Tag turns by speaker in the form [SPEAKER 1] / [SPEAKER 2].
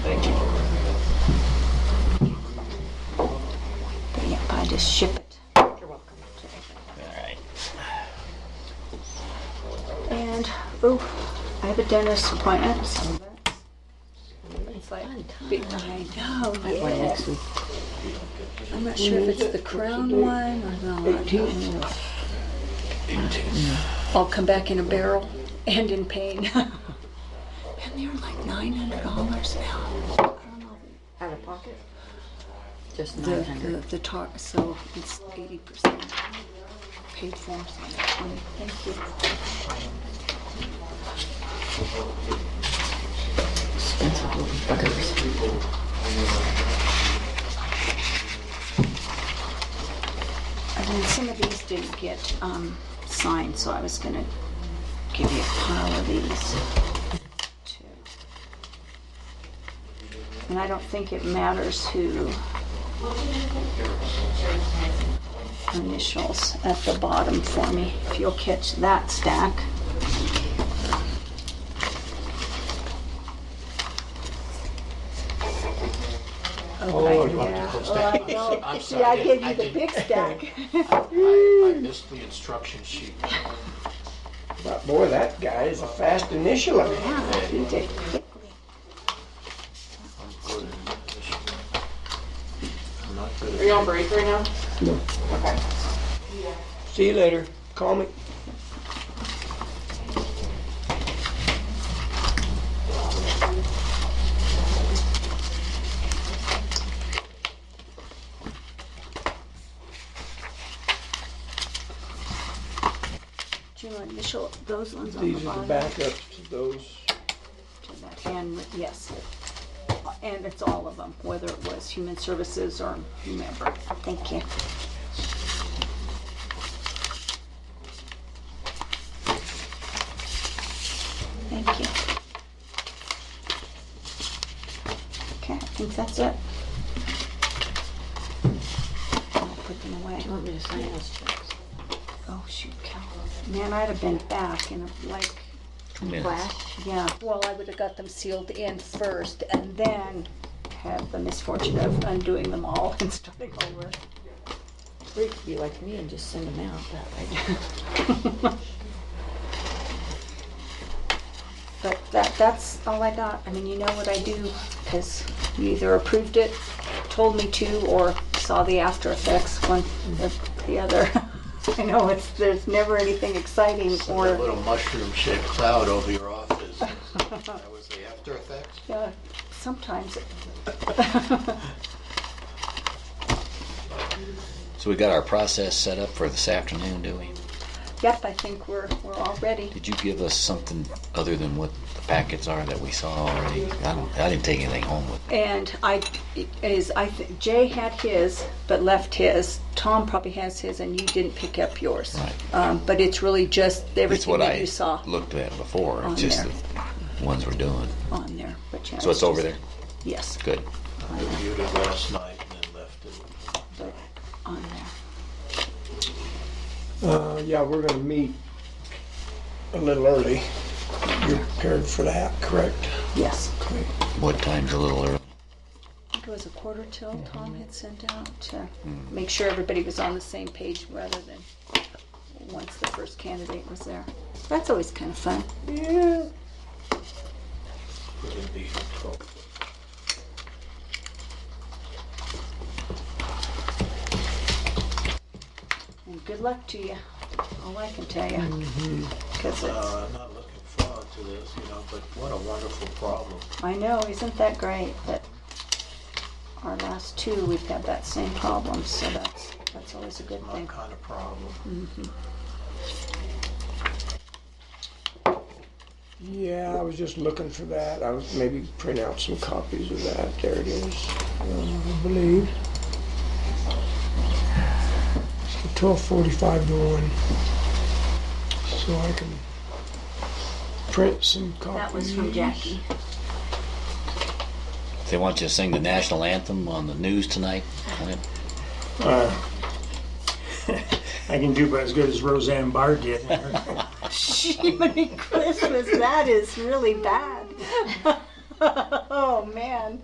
[SPEAKER 1] just ship it. You're welcome.
[SPEAKER 2] Alright.
[SPEAKER 1] And, oh, I have a dentist appointment, so that's. It's like big time. Oh, yes. I'm not sure if it's the crown one or not. I'll come back in a barrel and in pain. And they're like nine hundred dollars now. I don't know.
[SPEAKER 3] Out of pocket? Just
[SPEAKER 1] The,
[SPEAKER 3] nine
[SPEAKER 1] the,
[SPEAKER 3] hundred.
[SPEAKER 1] the tar, so it's eighty percent paid for, so that's fine. Thank you.
[SPEAKER 3] Expensive little buggers.
[SPEAKER 1] And then some of these didn't get um, signed, so I was gonna give you a pile of these. too. And I don't think it matters who initials at the bottom for me, if you'll catch that stack.
[SPEAKER 2] Oh, you want to close that?
[SPEAKER 1] I don't-
[SPEAKER 2] I'm
[SPEAKER 1] See, I
[SPEAKER 2] sorry,
[SPEAKER 1] gave
[SPEAKER 2] I
[SPEAKER 1] you the
[SPEAKER 2] didn't-
[SPEAKER 1] big stack.
[SPEAKER 2] I I missed the instruction sheet.
[SPEAKER 4] But boy, that guy is a fast initialer.
[SPEAKER 1] Yeah, you did quickly.
[SPEAKER 2] I'm good at this. I'm not good
[SPEAKER 5] Are you on break right now?
[SPEAKER 4] See you later. Call me.
[SPEAKER 1] Do you want to initial those ones on the
[SPEAKER 4] These are
[SPEAKER 1] bottom?
[SPEAKER 4] the backups to those.
[SPEAKER 1] to that, And, yes, and it's all of them, whether it was human services or whomever. Thank you. Thank you. Okay, I think that's it. I'll put them away.
[SPEAKER 3] You want me to sign those checks?
[SPEAKER 1] Oh, shoot, Cal. Man, I'd have been back in a, like,
[SPEAKER 2] at minutes.
[SPEAKER 3] Flash?
[SPEAKER 1] yeah, well, I would have got them sealed in first and then had the misfortune of undoing them all and starting over.
[SPEAKER 3] Or you could be like me and just send them out that way.
[SPEAKER 1] But that, that's all I got. I mean, you know what I do, because you either approved it, told me to, or saw the after effects, one or the other. I know, it's, there's never anything exciting
[SPEAKER 2] It's like a
[SPEAKER 1] or,
[SPEAKER 2] little mushroom shaped cloud over your office. That was the after effects?
[SPEAKER 1] yeah, uh, sometimes it
[SPEAKER 6] So we got our process set up for this afternoon, do we?
[SPEAKER 1] Yep, I think we're, we're all ready.
[SPEAKER 6] Did you give us something other than what the packets are that we saw already? I don't, I didn't take anything home with me.
[SPEAKER 1] And I, it is, I think Jay had his, but left his. Tom probably has his and you didn't pick up yours.
[SPEAKER 6] Right.
[SPEAKER 1] Um, but it's really just
[SPEAKER 6] It's
[SPEAKER 1] everything
[SPEAKER 6] what
[SPEAKER 1] that
[SPEAKER 6] I
[SPEAKER 1] you saw Oh,
[SPEAKER 6] looked at before,
[SPEAKER 1] On
[SPEAKER 6] it's just
[SPEAKER 1] there.
[SPEAKER 6] the ones we're doing.
[SPEAKER 1] on there. But yeah,
[SPEAKER 6] So it's over
[SPEAKER 1] just-
[SPEAKER 6] there?
[SPEAKER 1] Yes,
[SPEAKER 6] Good.
[SPEAKER 2] I reviewed it last night and then left it.
[SPEAKER 1] but on there.
[SPEAKER 4] Uh, yeah, we're gonna meet a little early. You're prepared for that, correct?
[SPEAKER 1] Yes.
[SPEAKER 4] Okay.
[SPEAKER 6] What time's a little early?
[SPEAKER 1] I think it was a quarter till Tom had sent out to
[SPEAKER 6] Mm-hmm.
[SPEAKER 1] make sure everybody was on the same page rather than once the first candidate was there. That's always kind of fun.
[SPEAKER 4] Yeah.
[SPEAKER 2] Would it be twelve?
[SPEAKER 1] And good luck to you. All I can tell you.
[SPEAKER 6] Mm-hmm.
[SPEAKER 1] Because it's,
[SPEAKER 2] Uh, I'm not looking forward to this, you know, but what a wonderful problem.
[SPEAKER 1] I know, isn't that great? But our last two, we've had that same problem, so that's, that's always a good
[SPEAKER 2] My
[SPEAKER 1] thing.
[SPEAKER 2] kind of problem.
[SPEAKER 4] Yeah, I was just looking for that. I was maybe print out some copies of that. There it is. I believe. So twelve forty-five to one. So I can print some copies.
[SPEAKER 1] That was from Jackie.
[SPEAKER 6] They want you to sing the national anthem on the news tonight? Clint?
[SPEAKER 7] I can do about as good as Roseanne Barr did.
[SPEAKER 1] Jiminy Christmas, that is really bad. Oh, man.